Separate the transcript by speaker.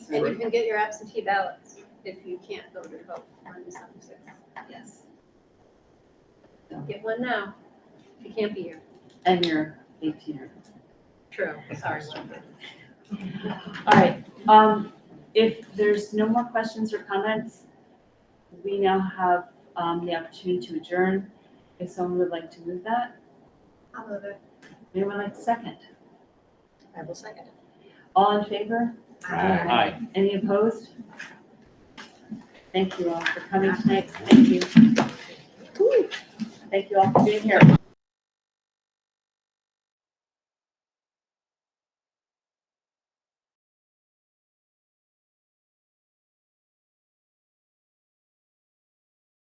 Speaker 1: You can get your absentee ballots if you can't go to vote on December sixth.
Speaker 2: Yes.
Speaker 1: Get one now, if you can't be here.
Speaker 2: And you're eighteen or.
Speaker 1: True, sorry.
Speaker 2: All right, um, if there's no more questions or comments, we now have, um, the opportunity to adjourn. If someone would like to move that,
Speaker 1: I'll move it.
Speaker 2: anyone like to second?
Speaker 1: I will second it.
Speaker 2: All in favor?
Speaker 3: Aye. Aye.
Speaker 2: Any opposed? Thank you all for coming tonight. Thank you. Thank you all for being here.